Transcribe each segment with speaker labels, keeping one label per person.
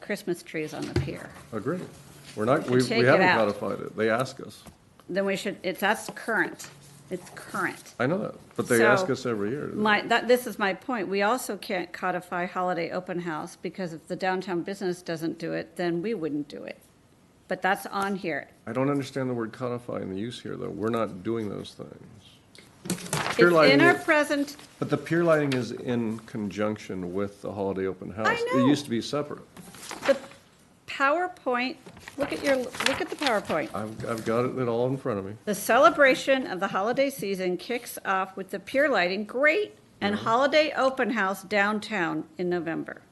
Speaker 1: Christmas trees on the pier.
Speaker 2: Agreed. We're not, we
Speaker 1: Take
Speaker 2: we
Speaker 1: it
Speaker 2: haven't
Speaker 1: out.
Speaker 2: codified it. They ask us.
Speaker 1: Then we should, it's, that's current. It's current.
Speaker 2: I know that, but they ask
Speaker 1: So,
Speaker 2: us every year.
Speaker 1: My, that, this is my point. We also can't codify holiday open house because if the downtown business doesn't do it, then we wouldn't do it. But that's on here.
Speaker 2: I don't understand the word codify in the use here, though. We're not doing those things.
Speaker 1: It's
Speaker 2: Pier
Speaker 1: in
Speaker 2: lighting,
Speaker 1: our
Speaker 2: is-
Speaker 1: present,
Speaker 2: but the pier lighting is in conjunction with the holiday open house.
Speaker 1: know.
Speaker 2: It used to be separate.
Speaker 1: the PowerPoint, look at your, look at the PowerPoint.
Speaker 2: I've, I've got it all in front of me.
Speaker 1: The celebration of the holiday season kicks off with the pier lighting, great, and holiday open house downtown in November.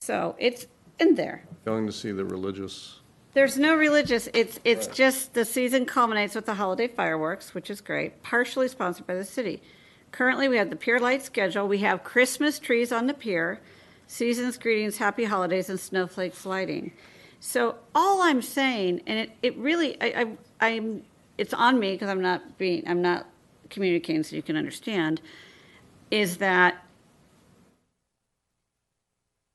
Speaker 1: So it's in there.
Speaker 2: Going to see the religious,
Speaker 1: There's no religious, it's, it's just the season culminates with the holiday fireworks, which is great, partially sponsored by the city. Currently, we have the pier light schedule, we have Christmas trees on the pier, seasons greetings, happy holidays, and snowflakes lighting. So all I'm saying, and it, it really, I, I, I'm, it's on me because I'm not being, I'm not communicating so you can understand, is that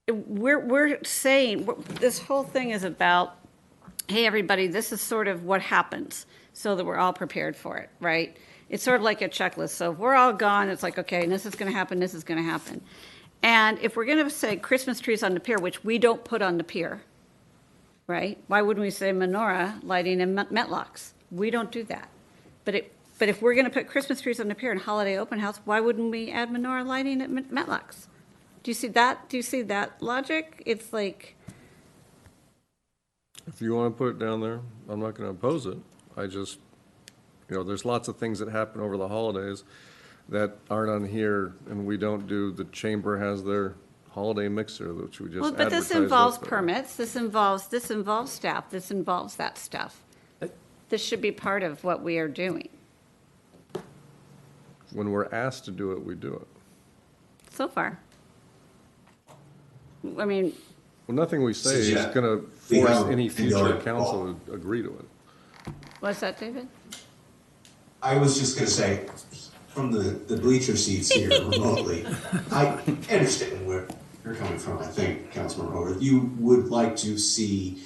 Speaker 1: we're, we're saying, we're- this whole thing is about, hey, everybody, this is sort of what happens, so that we're all prepared for it, right? It's sort of like a checklist, so if we're all gone, it's like, okay, this is gonna happen, this is gonna happen. And if we're gonna say Christmas trees on the pier, which we don't put on the pier, right? Why wouldn't we say menorah lighting and met- metlocks? We don't do that. But it, but if we're gonna put Christmas trees on the pier and holiday open house, why wouldn't we add menorah lighting at met- metlocks? Do you see that? Do you see that logic? It's like,
Speaker 2: if you want to put it down there, I'm not going to oppose it. I just, you know, there's lots of things that happen over the holidays that aren't on here, and we don't do, the chamber has their holiday mixer, which we just
Speaker 1: well, but this
Speaker 2: advertise
Speaker 1: involves
Speaker 2: with.
Speaker 1: permits, this involves, this involves staff, this involves that stuff.
Speaker 2: Uh,
Speaker 1: This should be part of what we are doing.
Speaker 2: When we're asked to do it, we do it.
Speaker 1: So far. I mean,
Speaker 2: Well, nothing we say is
Speaker 3: Yeah.
Speaker 2: going to
Speaker 3: We
Speaker 2: force
Speaker 3: have-
Speaker 2: any
Speaker 3: we know
Speaker 2: future
Speaker 3: it.
Speaker 2: council to agree to it.
Speaker 1: what's that, David?
Speaker 3: I was just gonna say, from the, the bleacher seats here remotely, I understand where you're coming from, I think, Councilman Horwath. You would like to see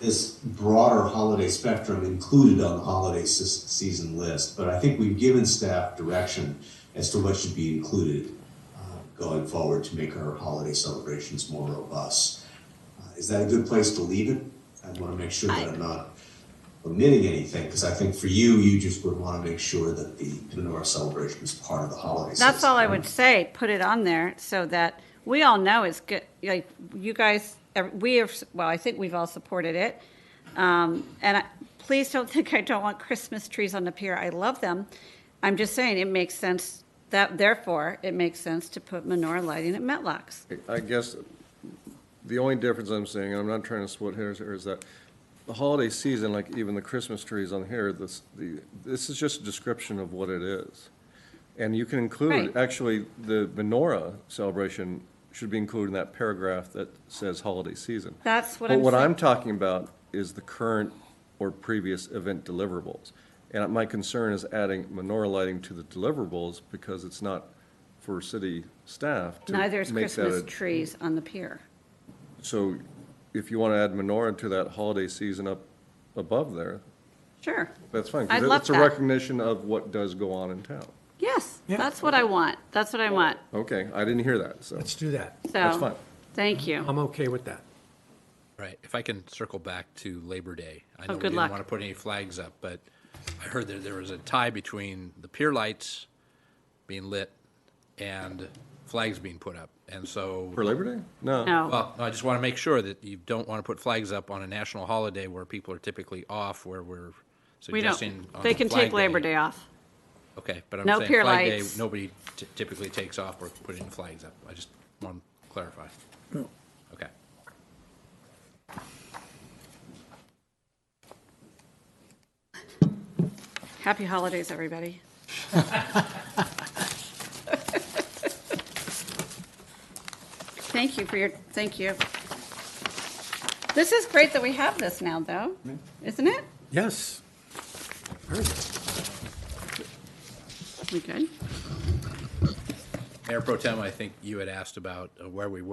Speaker 3: this broader holiday spectrum included on the holiday se- season list, but I think we've given staff direction as to what should be included uh, going forward to make our holiday celebrations more robust. Uh, Is that a good place to leave it? I wanna make sure that I'm not omitting anything, because I think for you, you just would want to make sure that the menorah celebration is part of the holiday season.
Speaker 1: That's all I would say, put it on there so that we all know it's good, like, you guys, ev- we have, well, I think we've all supported it. Um, And I- please don't think I don't want Christmas trees on the pier, I love them. I'm just saying, it makes sense, that therefore, it makes sense to put menorah lighting at Metlocks.
Speaker 2: I guess the only difference I'm seeing, and I'm not trying to split hairs here, is that the holiday season, like even the Christmas trees on here, this, the, this is just a description of what it is. And you can include,
Speaker 1: Right.
Speaker 2: actually, the menorah celebration should be included in that paragraph that says holiday season.
Speaker 1: That's what
Speaker 2: But
Speaker 1: I'm
Speaker 2: what
Speaker 1: saying.
Speaker 2: I'm talking about is the current or previous event deliverables. And my concern is adding menorah lighting to the deliverables because it's not for city staff to
Speaker 1: Neither is
Speaker 2: make
Speaker 1: Christmas
Speaker 2: that a-
Speaker 1: trees on the pier.
Speaker 2: So if you want to add menorah to that holiday season up above there,
Speaker 1: Sure,
Speaker 2: that's fine. 'cause
Speaker 1: I'd love
Speaker 2: It's a
Speaker 1: that.
Speaker 2: recognition of what does go on in town.
Speaker 1: yes, that's what I want, that's what I want,
Speaker 2: Okay, I didn't hear that, so.
Speaker 4: Let's do that.
Speaker 1: so.
Speaker 2: That's fine.
Speaker 1: Thank you.
Speaker 4: I'm okay with that.
Speaker 5: Right. If I can circle back to Labor Day, I know we
Speaker 1: Oh, good
Speaker 5: didn't
Speaker 1: luck.
Speaker 5: want to put any flags up, but I heard that there was a tie between the pier lights being lit and flags being put up. And so,
Speaker 2: For Labor Day? No.
Speaker 1: No,
Speaker 5: well, I just want to make sure that you don't want to put flags up on a national holiday where people are typically off, where we're
Speaker 1: we
Speaker 5: suggesting.
Speaker 1: don't,
Speaker 5: on
Speaker 1: they can take
Speaker 5: Flag
Speaker 1: Labor Day off.
Speaker 5: Okay, but I'm
Speaker 1: No
Speaker 5: saying
Speaker 1: pier
Speaker 5: Flag Day,
Speaker 1: lights.
Speaker 5: nobody t- typically takes off or putting flags up. I just want to clarify. Okay.
Speaker 1: Happy holidays, everybody. Thank you for your, thank you. This is great that we have this now, though, isn't it?
Speaker 4: Yes.
Speaker 1: We good?
Speaker 5: Mayor Pro Tem, I think you had asked about uh, where we were.